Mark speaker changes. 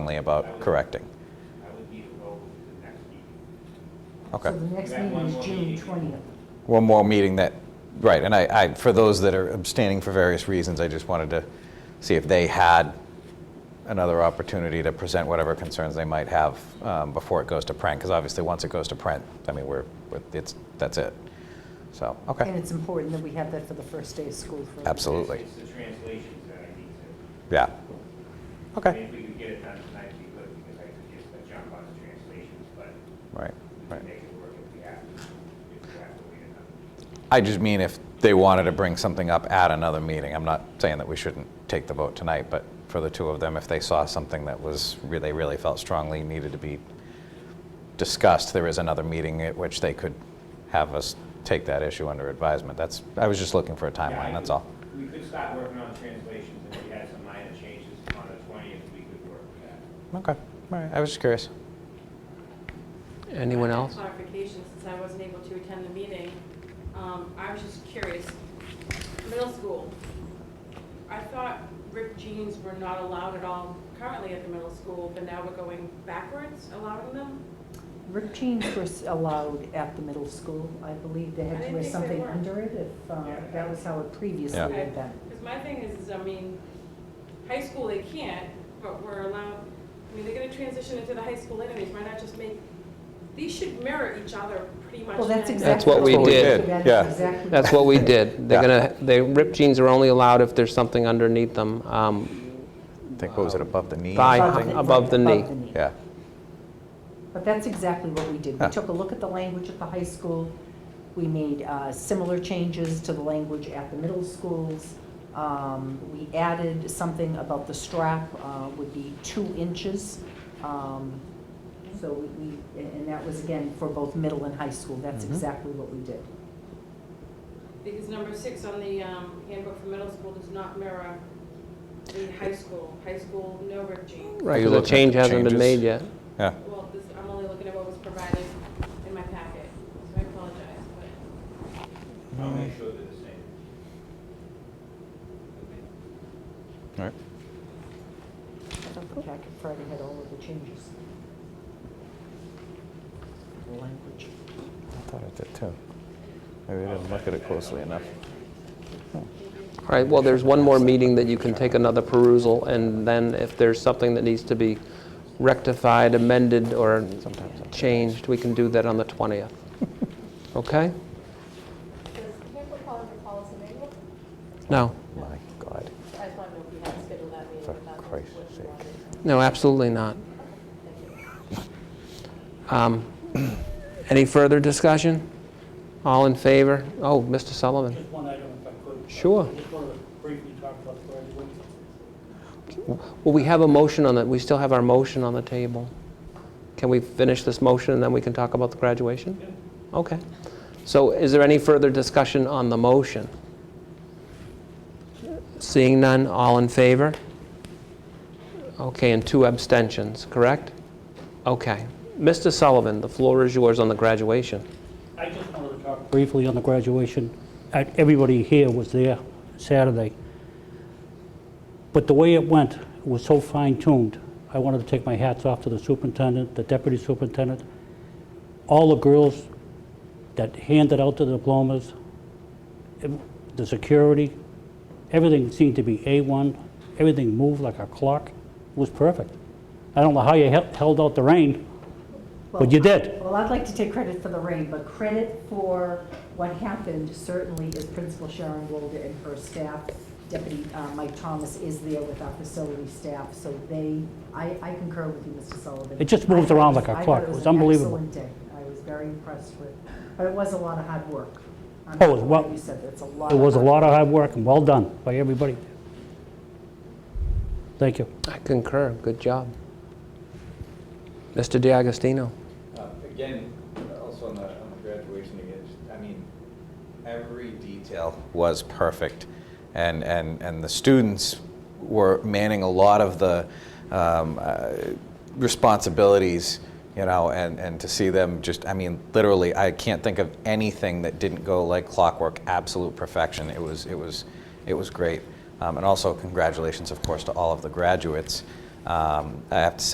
Speaker 1: strongly about correcting.
Speaker 2: I would need to go to the next meeting.
Speaker 1: Okay.
Speaker 3: So the next
Speaker 2: You got
Speaker 3: meeting
Speaker 2: one
Speaker 3: is
Speaker 2: more
Speaker 3: June
Speaker 2: meeting.
Speaker 3: 20th.
Speaker 1: One more meeting that, right, and I, I, for those that are abstaining for various reasons, I just wanted to see if they had another opportunity to present whatever concerns they might have um, before it goes to print, because obviously, once it goes to print, I mean, we're, we're- it's, that's it. So,
Speaker 3: And
Speaker 1: okay,
Speaker 3: it's important that we have that for the first day of school. for-
Speaker 1: absolutely,
Speaker 2: It's the translations that I need to,
Speaker 1: yeah.
Speaker 2: I mean,
Speaker 1: Okay,
Speaker 2: if we could get it done tonight, we could, because I could just uh, jump on the translations, but
Speaker 1: right,
Speaker 2: we
Speaker 1: right.
Speaker 2: can make it work if we have to, if we have to wait another.
Speaker 1: I just mean if they wanted to bring something up at another meeting. I'm not saying that we shouldn't take the vote tonight, but for the two of them, if they saw something that was, re- they really felt strongly needed to be discussed, there is another meeting at which they could have us take that issue under advisement. That's, I was just looking for a
Speaker 2: Yeah, I
Speaker 1: timeline, that's
Speaker 2: could-
Speaker 1: all.
Speaker 2: We could start working on translations, and if we had some minor changes on the twentieth, we could work with that.
Speaker 1: Okay, all right, I was just curious.
Speaker 4: Anyone else?
Speaker 5: Clarification, since I wasn't able to attend the meeting, um, I was just curious. Middle school, I thought ripped jeans were not allowed at all currently at the middle school, but now we're going backwards allowing them?
Speaker 3: Ripped jeans were s- allowed at the middle school. I believe they
Speaker 5: I
Speaker 3: had to
Speaker 5: didn't
Speaker 3: wear
Speaker 5: think they
Speaker 3: something
Speaker 5: were.
Speaker 3: under it if uh,
Speaker 2: Yeah.
Speaker 3: that was how it previously
Speaker 1: Yeah.
Speaker 3: had been.
Speaker 5: Because my thing is, is, I mean, high school they can't, but we're allowed, I mean, they're gonna transition into the high school anyways, why not just make, these should mirror each other pretty much.
Speaker 3: Well, that's
Speaker 5: now.
Speaker 3: exactly.
Speaker 4: That's what we did.
Speaker 3: That's
Speaker 1: Yeah.
Speaker 3: exactly-
Speaker 4: That's what we did. They're
Speaker 1: Yeah.
Speaker 4: gonna, they, ripped jeans are only allowed if there's something underneath them. Um,
Speaker 1: I think, what was it, above the knee? or
Speaker 4: Thigh
Speaker 1: something?
Speaker 4: high. above the knee.
Speaker 1: Yeah,
Speaker 3: But that's exactly what we did. We
Speaker 1: Yeah.
Speaker 3: took a look at the language at the high school. We made uh, similar changes to the language at the middle schools. Um, We added something about the strap uh, would be two inches. Um, So we, we- and and that was again for both middle and high school. That's
Speaker 1: Mhm.
Speaker 3: exactly what we did.
Speaker 5: Because number six on the um, handbook for middle school does not mirror the high school. High school, no rip jeans.
Speaker 1: Are
Speaker 4: Right,
Speaker 1: you
Speaker 4: 'cause the
Speaker 1: looking at
Speaker 4: change
Speaker 1: the
Speaker 4: hasn't
Speaker 1: changes?
Speaker 4: been made yet.
Speaker 1: yeah.
Speaker 5: Well, this, I'm only looking at what was provided in my packet, so I apologize, but
Speaker 2: I'll make sure they're the same.
Speaker 1: All right.
Speaker 3: I thought the packet Friday had all of the changes. The language.
Speaker 1: I thought it did too. Maybe I didn't look at it closely enough.
Speaker 4: All right, well, there's one more meeting that you can take another perusal, and then if there's something that needs to be rectified, amended, or changed, we can do that on the 20th. Okay?
Speaker 6: Does handbook fall under policy manual?
Speaker 4: No,
Speaker 1: My God,
Speaker 6: I just want to know if we had scheduled that meeting.
Speaker 1: For
Speaker 6: if that was
Speaker 1: Christ's
Speaker 6: what you
Speaker 1: sake.
Speaker 6: wanted.
Speaker 4: no, absolutely not. Um, Any further discussion? All in favor? Oh, Mr. Sullivan.
Speaker 7: Just one item if I could.
Speaker 4: Sure.
Speaker 7: I just wanted to briefly talk about the graduation.
Speaker 4: Well, we have a motion on the, we still have our motion on the table. Can we finish this motion and then we can talk about the graduation? Okay. So is there any further discussion on the motion? Seeing none, all in favor? Okay, and two abstentions, correct? Okay. Mr. Sullivan, the floor is yours on the graduation.
Speaker 7: I just wanted to talk briefly on the graduation. Uh, Everybody here was there Saturday. But the way it went was so fine-tuned. I wanted to take my hats off to the superintendent, the deputy superintendent, all the girls that handed out the diplomas, ev- the security, everything seemed to be A1. Everything moved like a clock. It was perfect. I don't know how you hel- held out the rain, but you did.
Speaker 3: Well, I'd like to take credit for the rain, but credit for what happened certainly is Principal Sharon Golda and her staff. Deputy uh, Mike Thomas is there with our facility staff, so they, I I concur with you, Mr. Sullivan.
Speaker 7: It just moved around like a
Speaker 3: I thought
Speaker 7: clock. It was unbelievable.
Speaker 3: an excellent day. I was very impressed with, but it was a lot of hard work. I'm
Speaker 7: Oh, it was-
Speaker 3: glad You said that's a lot.
Speaker 7: It was a
Speaker 3: hard
Speaker 7: lot of hard work and well done by everybody. Thank you.
Speaker 4: I concur, good job. Mr. DiAgostino.
Speaker 8: Uh, Again, also on the, on the graduation again, just- I mean,
Speaker 1: every detail was perfect. And, and, and the students were manning a lot of the um, uh, responsibilities, you know, and, and to see them just, I mean, literally, I can't think of anything that didn't go like clockwork, absolute perfection. It was, it was, it was great. Um, and also, congratulations, of course, to all of the graduates. Um, I have to say,